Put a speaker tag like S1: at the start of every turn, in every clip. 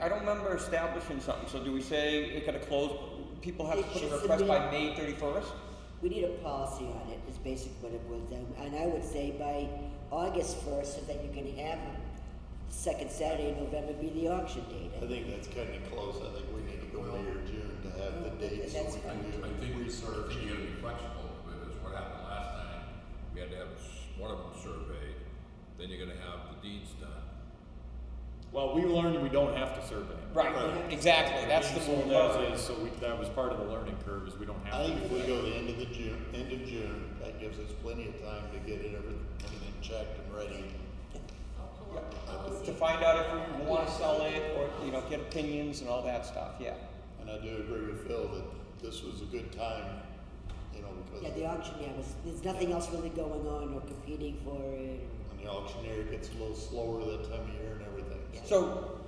S1: I don't remember establishing something, so do we say it gotta close, people have to
S2: It
S1: put
S2: should
S1: a request by
S2: submit-
S1: May thirty-first?
S2: We need a policy on it, is basically what it was, down. and I would say by August first, so that you can have the second Saturday in November be the auction date.
S3: I think that's kind of close. I think we need to go May or June to have the date so
S2: That's
S3: we
S2: fine.
S3: can
S4: I
S3: do
S4: think, I
S3: research.
S4: think you gotta be flexible, because what happened last time, we had to have s- one of them surveyed, then you're gonna have the deeds done.
S5: Well, we learned we don't have to survey.
S1: Right, exactly, that's the
S5: Being
S1: rule.
S5: sold as is, so we, that was part of the learning curve, is we don't
S3: I
S5: have to.
S3: think if
S5: do
S3: we
S5: that.
S3: go the end of the June, end of June, that gives us plenty of time to get it everything, everything checked and ready.
S1: To find out if we wanna sell it, or, you know, get opinions and all that stuff, yeah.
S3: And I do agree with Phil that this was a good time, you know, because
S2: Yeah, the auction, yeah, was, there's nothing else really going on or competing for it, or,
S3: when the auctioneer gets a little slower that time of year and everything.
S2: Yeah.
S1: So,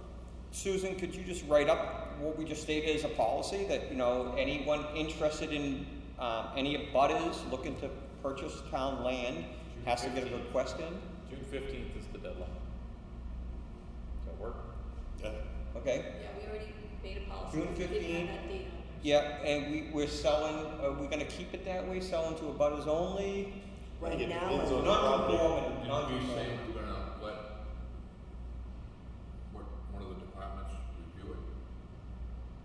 S1: Susan, could you just write up what we just stated as a policy that, you know, anyone interested in, um, any abutters looking to purchase town land has to get a request in?
S5: June fifteenth is the deadline. Does that work?
S3: Yeah.
S1: Okay?
S6: Yeah, we already made a policy.
S1: June
S6: We didn't
S1: 15.
S6: have that date on there.
S1: Yeah, and we, we're selling, are we gonna keep it that way, selling to abutters only?
S3: I think
S2: right
S3: it
S2: now,
S3: depends on-
S2: we're-
S1: Non-conforming,
S4: And we say
S1: non-conforming.
S4: we're gonna let, what, one of the departments review it,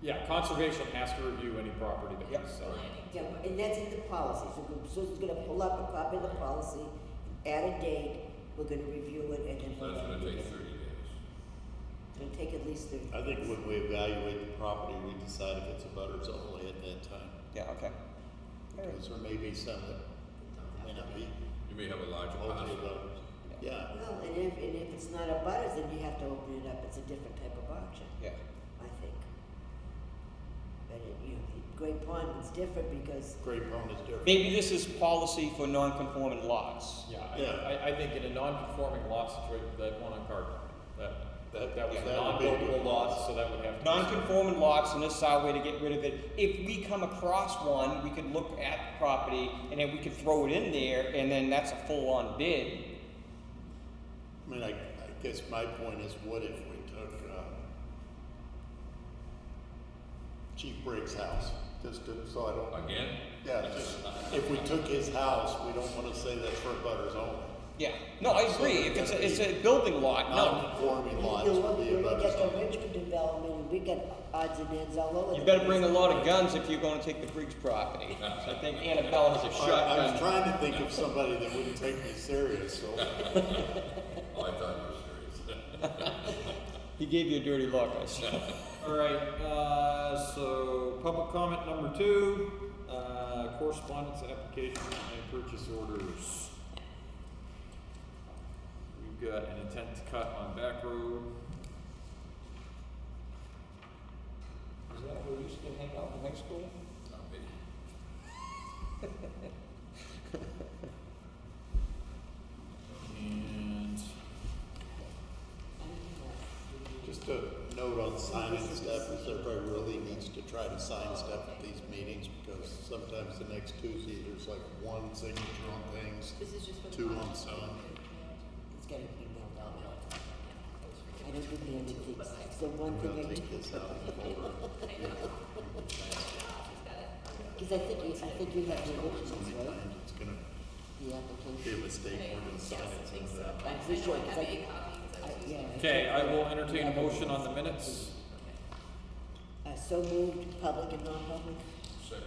S5: Yeah, conservation has to review any property that
S1: Yep.
S5: we sell.
S2: yeah, and that's in the policy, so we're- so it's gonna pull up a copy of the policy, add a date, we're gonna review it, and then.
S4: so that's gonna take thirty days.
S2: It'll take at least thirty.
S3: I think when we evaluate the property, we decide if it's a butters only at that time.
S1: Yeah, okay. Alright.
S3: Because there may be some that may not be,
S4: You may have a larger
S3: multi
S4: parcel.
S3: butters. Yeah,
S2: Well, and if, and if it's not a butters, then you have to open it up, it's a different type of auction,
S1: Yeah,
S2: I think. But it, you know, the Great Pond is different because,
S3: Great Pond is different.
S1: maybe this is policy for non-conforming lots.
S5: Yeah,
S3: Yeah.
S5: I, I, I think in a non-conforming lot situation, that one on Cardinal, that, that, that was a
S3: That would be a good
S5: non-buildable lot, so that would have to. be-
S1: Non-conforming lots, and this is our way to get rid of it. If we come across one, we could look at the property, and then we could throw it in there, and then that's a full-on bid.
S3: I mean, I, I guess my point is, what if we took, um, Chief Briggs' house, just to, so I don't,
S4: Again?
S3: yeah, just, if we took his house, we don't wanna say that's for butters only.
S1: Yeah, no, I
S3: So
S1: agree, if
S3: it's
S1: it's
S3: gotta
S1: a, it's
S3: be
S1: a building lot, no.
S3: Non-conforming
S2: you
S3: lots
S2: know,
S3: would
S2: when
S3: be a
S2: we
S3: butters
S2: get the
S3: only.
S2: Richmond development, and we get odds and ends all over.
S1: You
S2: the
S1: better
S2: place.
S1: bring a lot of guns if you're gonna take the Briggs property. I think Annabelle has a
S3: I, I was
S1: shotgun.
S3: trying to think of somebody that wouldn't take me serious, so,
S4: Oh, I thought you were serious.
S1: He gave you a dirty look, I see.
S5: All right, uh, so public comment number two, uh, correspondence, application, and purchase orders. We've got an intent to cut on back road.
S1: Is that where we used to hang out in high school?
S4: Not me.
S5: And
S3: just a note on signing stuff, is everybody really needs to try to sign stuff at these meetings, because sometimes the next Tuesday, there's like one signature on things,
S6: This is just for the.
S3: two on
S6: policy.
S3: some.
S2: It's gotta be mailed out. I don't do mailing things, it's the one
S3: We'll
S2: thing I do,
S3: take this out of the folder.
S2: because I think, you- I think you have the originals, right?
S3: Sometimes It's gonna
S2: The
S3: be a
S2: application.
S3: mistake, we're gonna sign it someday.
S2: I'm pretty sure, 'cause I- I- uh, yeah, I
S5: Okay,
S2: think-
S5: I will entertain a motion on the minutes.
S2: Uh, so moved, public and non-public.
S4: Second.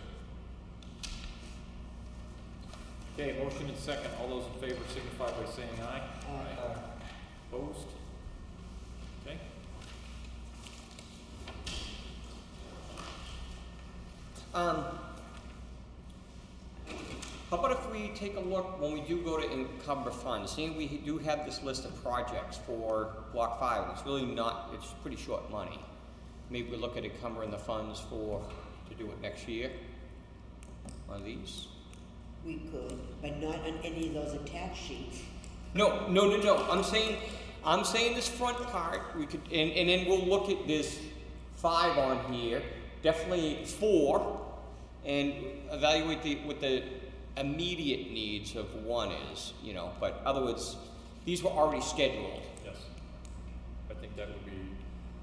S5: Okay, motion and second, all those in favor signify by saying aye.
S2: Aye.
S5: Opposed? Okay.
S1: Um, how about if we take a look when we do go to encumber funds, seeing we do have this list of projects for block five, it's really not, it's pretty short money. Maybe we look at encumbering the funds for, to do it next year, on these.
S2: We could, but not on any of those attached sheets.
S1: No, no, no, no. I'm saying, I'm saying this front part. We could, and, and then we'll look at this five on here. Definitely four, and evaluate the what the immediate needs of one is. You know, but other words, these were already scheduled.